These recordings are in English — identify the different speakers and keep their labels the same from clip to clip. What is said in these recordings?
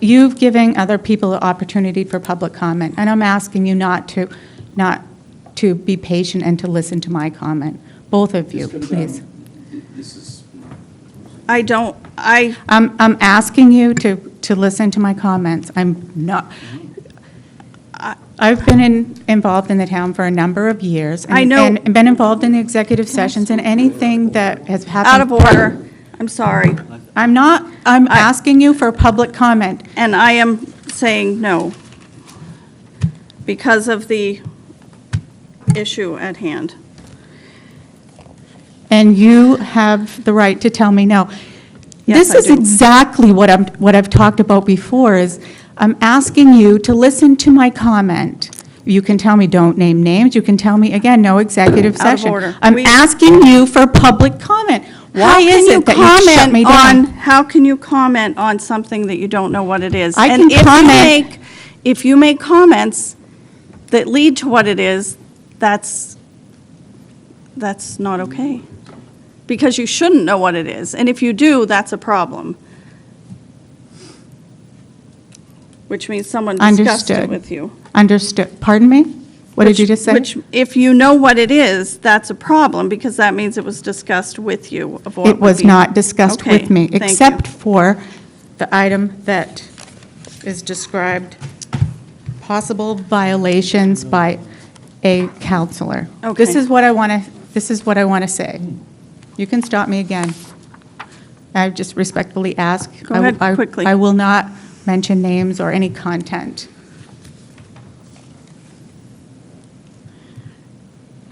Speaker 1: You've given other people the opportunity for public comment, and I'm asking you not to, not to be patient and to listen to my comment, both of you,
Speaker 2: Just come down.
Speaker 1: please.
Speaker 2: This is,
Speaker 3: I don't, I,
Speaker 1: I'm, I'm asking you to, to listen to my comments. I'm not, I- I've been in- involved in the town for a number of years. and-
Speaker 3: I know.
Speaker 1: And been involved in the executive sessions and anything that has happened.
Speaker 3: out of order, I'm sorry,
Speaker 1: I'm not, I'm
Speaker 3: I-
Speaker 1: asking you for public comment.
Speaker 3: and I am saying no because of the issue at hand.
Speaker 1: And you have the right to tell me no.
Speaker 3: Yes,
Speaker 1: This is
Speaker 3: I do.
Speaker 1: exactly what I'm, what I've talked about before, is I'm asking you to listen to my comment. You can tell me, don't name names, you can tell me, again, no executive
Speaker 3: Out of
Speaker 1: session.
Speaker 3: order.
Speaker 1: I'm
Speaker 3: We-
Speaker 1: asking you for public comment. Why
Speaker 3: How can
Speaker 1: is
Speaker 3: you
Speaker 1: it that you shut
Speaker 3: comment
Speaker 1: me
Speaker 3: on-
Speaker 1: down?
Speaker 3: How can you comment on something that you don't know what it is?
Speaker 1: I
Speaker 3: And
Speaker 1: can
Speaker 3: if you
Speaker 1: comment-
Speaker 3: make- If you make comments that lead to what it is, that's, that's not okay. Because you shouldn't know what it is, and if you do, that's a problem. Which means someone discussed it
Speaker 1: Understood.
Speaker 3: with you.
Speaker 1: Understood, pardon me? What did
Speaker 3: Which-
Speaker 1: you just say?
Speaker 3: Which, if you know what it is, that's a problem, because that means it was discussed with you of what
Speaker 1: It
Speaker 3: would
Speaker 1: was
Speaker 3: be-
Speaker 1: not discussed
Speaker 3: Okay,
Speaker 1: with me,
Speaker 3: thank you.
Speaker 1: except for the item that is described, possible violations by a counselor. This
Speaker 3: Okay.
Speaker 1: is what I want to, this is what I want to say. You can stop me again. I just respectfully ask.
Speaker 3: Go
Speaker 1: I-
Speaker 3: ahead,
Speaker 1: I-
Speaker 3: quickly.
Speaker 1: I will not mention names or any content.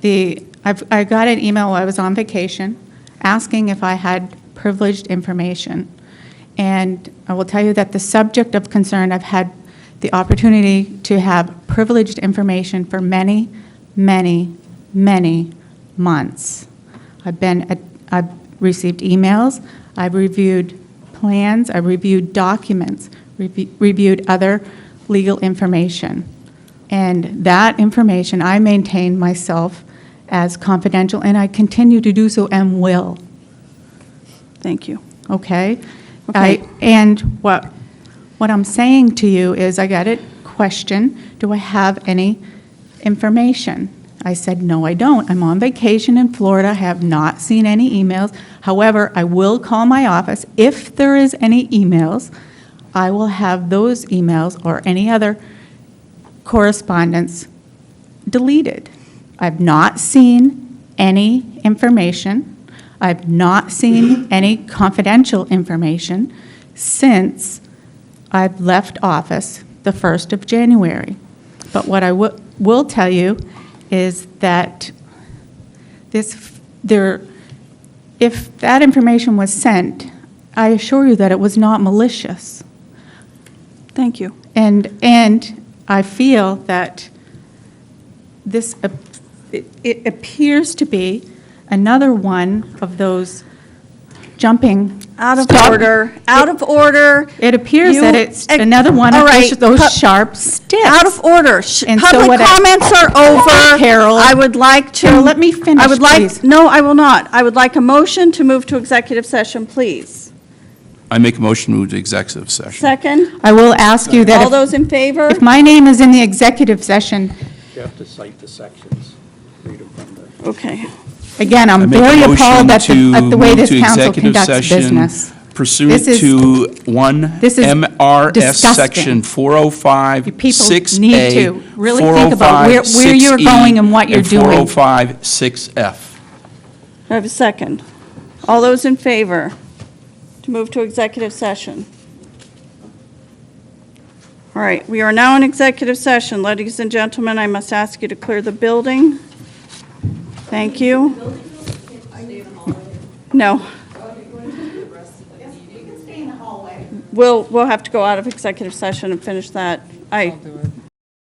Speaker 1: the, I've, I got an email while I was on vacation asking if I had privileged information. And I will tell you that the subject of concern, I've had the opportunity to have privileged information for many, many, many months. I've been, at- I've received emails, I've reviewed plans, I've reviewed documents, revi- reviewed other legal information. And that information, I maintain myself as confidential, and I continue to do so and will,
Speaker 3: Thank you.
Speaker 1: okay?
Speaker 3: Okay.
Speaker 1: I- And what, what I'm saying to you is, I got a question, do I have any information? I said, no, I don't. I'm on vacation in Florida, I have not seen any emails. However, I will call my office. If there is any emails, I will have those emails or any other correspondence deleted. I've not seen any information. I've not seen any confidential information since I've left office the 1st of January. But what I wi- will tell you is that this, f- there, if that information was sent, I assure you that it was not malicious.
Speaker 3: Thank you.
Speaker 1: And, and I feel that this, ap- it- it appears to be another one of those jumping.
Speaker 3: Out of
Speaker 1: stop-
Speaker 3: order, out of order.
Speaker 1: It appears that
Speaker 3: You-
Speaker 1: it's another one
Speaker 3: All
Speaker 1: of
Speaker 3: right,
Speaker 1: those- those
Speaker 3: pu-
Speaker 1: sharp sticks.
Speaker 3: Out of order. Sh-
Speaker 1: And so
Speaker 3: Public
Speaker 1: what I-
Speaker 3: comments are over.
Speaker 1: Carol.
Speaker 3: I would like to.
Speaker 1: Carol, let me finish,
Speaker 3: I would
Speaker 1: please.
Speaker 3: like, no, I will not. I would like a motion to move to executive session, please.
Speaker 2: I make a motion to move to executive session.
Speaker 3: Second,
Speaker 1: I will ask you
Speaker 3: all
Speaker 1: that if-
Speaker 3: those in favor?
Speaker 1: if my name is in the executive session,
Speaker 4: You have to cite the sections, read them from the.
Speaker 3: Okay.
Speaker 1: again,
Speaker 2: I
Speaker 1: I'm
Speaker 2: make a
Speaker 1: very
Speaker 2: motion
Speaker 1: appalled at the,
Speaker 2: to
Speaker 1: at the way
Speaker 2: move
Speaker 1: this
Speaker 2: to
Speaker 1: council
Speaker 2: executive
Speaker 1: conducts
Speaker 2: session
Speaker 1: business.
Speaker 2: Pursuant
Speaker 1: This is-
Speaker 2: to one
Speaker 1: this is
Speaker 2: MRS Section
Speaker 1: disgusting. You
Speaker 2: 405,
Speaker 1: people
Speaker 2: 6A.
Speaker 1: need to really think about where-
Speaker 2: 405,
Speaker 1: where you're
Speaker 2: 6E,
Speaker 1: going and what you're doing.
Speaker 2: 405, 6F.
Speaker 3: I have a second. All those in favor to move to executive session? All right, we are now in executive session. Ladies and gentlemen, I must ask you to clear the building. Thank you. No. We'll, we'll have to go out of executive session and finish that. I,